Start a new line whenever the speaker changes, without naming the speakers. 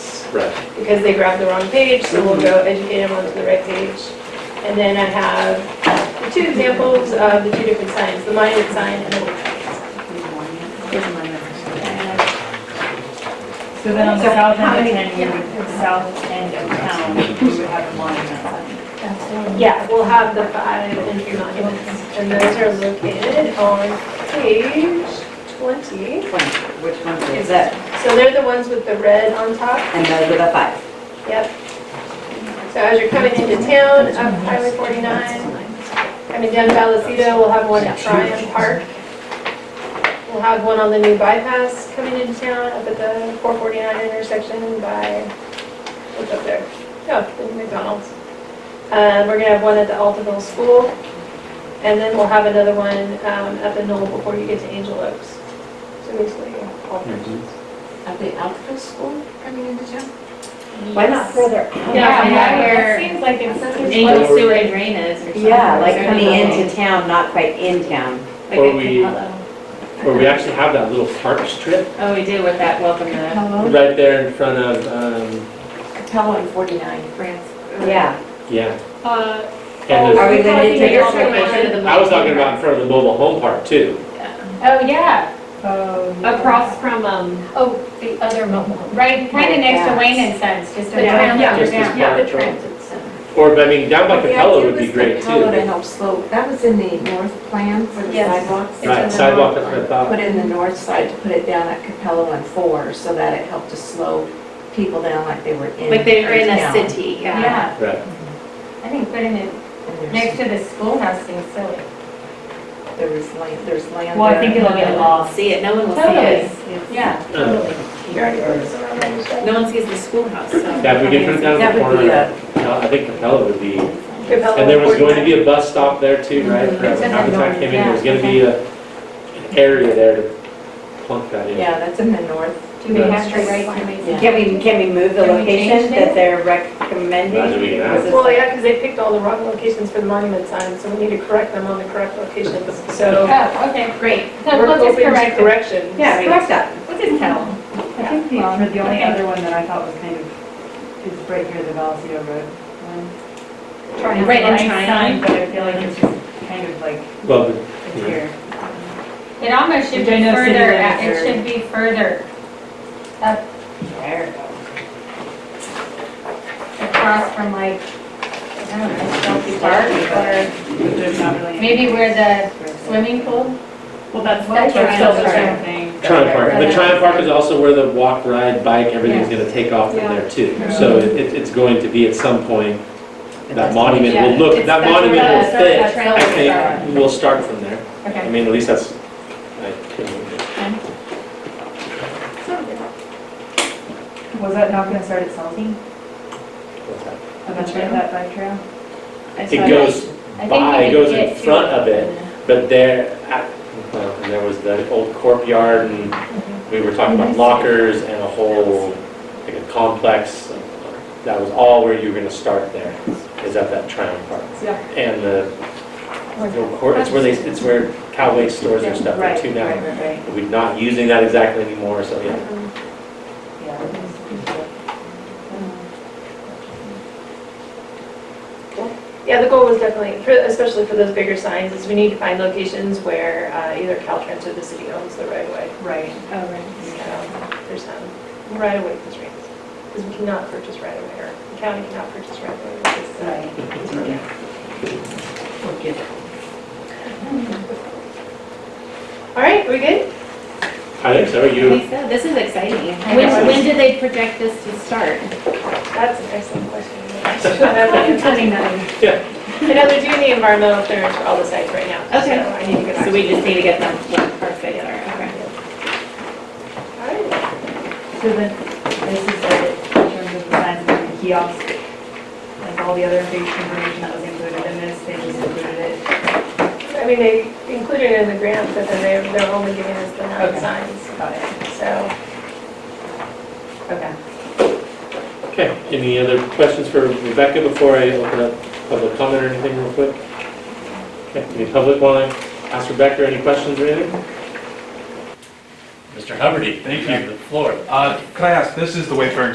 Right.
because they grabbed the wrong page, so we'll go educate them onto the right page. And then I have the two examples of the two different signs, the monument sign and the workshop sign. And
So then on the
So
south
how
end
many-
of town, you would, south end of town, you would have a monument sign.
Yeah, we'll have the five entry monuments, and those are located on page 20.
Which ones is that?
So they're the ones with the red on top,
And those are the five.
yep. So as you're coming into town, up Highway 49, coming down Vallecito, we'll have one at Tryon Park. We'll have one on the new bypass coming into town, up at the 449 intersection by, what's up there? Oh, the McDonald's. Uh, We're gonna have one at the Altaville School, and then we'll have another one um, at the Knoll before you get to Angel Oaks. So basically, all three.
At the Alpha School coming into town?
Why not further?
Yeah,
Yeah,
where-
it seems like it's.
Angel Sewer and Drain is or something.
Yeah, like
Is there
coming
any-
into town, not quite in town.
like
Or
a-
we- Where we actually have that little park strip
Oh, we do with that welcome to
right there in front of, um,
Capella and 49 France.
Yeah.
yeah.
Uh,
And
Are
there's-
we gonna take
Your
a
location of the
I was talking
monument.
about in front of the mobile home park too.
Oh, yeah,
Oh.
across from, um,
Oh, the other mobile home.
right, kind of next to Wayne and Sons, just
The
around.
transit
Just this
center.
part,
Yeah, the
right.
transit center.
Or, but I mean, down by
The
Capella
idea
would be
was
great
Capella to
too.
help slow, that was in the north plan for the
Yes.
sidewalks.
It's in
Right,
the
sidewalk
north
up at
Put
the,
in the north side to put it down at Capella and Four so that it helped to slow people down like they were in.
Like they were in a
town.
city, yeah.
Yeah,
right,
I think putting it
And
next
there's-
to the schoolhouse seems silly.
There was land, there's land.
Well, I
there.
think it'll get lost.
See it, no one will see
Totally.
it.
Yeah,
Uh,
No one sees the schoolhouse, so.
yeah, if we could put it down
That
in the
would be
corner,
a,
No, I think Capella would be,
Capella
and there was going to
49.
be a bus stop there too, right? For
It's in the
Habitat
north,
came in, there was
yeah.
gonna be a, an area there to plunk that in.
Yeah, that's in the north.
do we have to write to me?
can we, can we move the
Can we change
location that
it?
they're recommending?
Imagine we can
Because
add.
it's
Well,
like-
yeah, because they picked all the wrong locations for the monument signs, so we need to correct them on the correct locations. So
Oh, okay, great. So
we're
we'll just
open to
correct it.
corrections.
Yeah, I mean, it's not-
We'll just tell them.
I think the, the only other one that I thought was kind of, is right here, the Valseo Road one.
Try
Right, and
Nice
try
sign, But I feel like it's just kind of like,
Well,
it's
Yeah.
here.
It almost should
Which
be
I know city
further, out-
limits
it
are-
should be further
There.
across from like, I don't know, Chelsea Park
But there's not really.
or
any-
maybe where the swimming pool.
Well, that's what
That's
we're
right.
still
That's
trying
right.
to think.
Triumph Park,
right.
the Triumph Park is also where the walk, ride, bike, everything's
Yeah.
gonna take off from
Yeah.
there too. So it, it- it's going to be at some point, that monument will
Yeah,
look,
it's-
that
that's where
monument
the-
will fit.
that's where
I
the trail
think we'll start from there.
is.
I
Okay.
mean, at least that's, I think.
Was that not gonna start at Salty? Eventually,
trail?
that bike trail?
It goes
I think
by,
we
it
can
goes
get
in
to
front of it, but there, at- well, and there was the old courtyard and we were talking
Mhm.
about lockers and a whole, like a complex. That was all where you were gonna start there, is at that Triumph Park.
Yeah.
And the, the court, it's where they, it's where Cowway stores their stuff there
Right,
too now.
Right, right, right,
We're not using that exactly anymore, so yeah.
yeah.
Yeah, the goal was definitely, for- especially for those bigger signs, is we need to find locations where uh, either Caltrans or the city owns the right of way.
Right.
Oh, right.
So There's some right of way constraints, because we cannot purchase right of way, or the county cannot purchase right of way. because, uh, it's really- All right, we good?
I think so,
I
you,
think so. This is exciting.
I
When,
know.
when did they project this to start?
That's an excellent question.
yeah,
I know they're doing the environmental clearance for all the sites right now.
Okay.
So I need to get back
So
to
we
you.
just need to get them, yeah, perfect, all right, okay.
All right.
So then, this is it, in terms of the signs and the kiosks, like all the other big information that was included in this, they just included it.
I mean, they included it in the grant, but then they're, they're only giving us the nine
Okay.
signs,
Got it.
so.
Okay.
okay. Any other questions for Rebecca before I open up public comment or anything real quick? Okay, any public want to ask Rebecca any questions or anything?
Mr. Huberty,
Thank
you have the floor.
Uh, Can I ask, this is the Wayfaring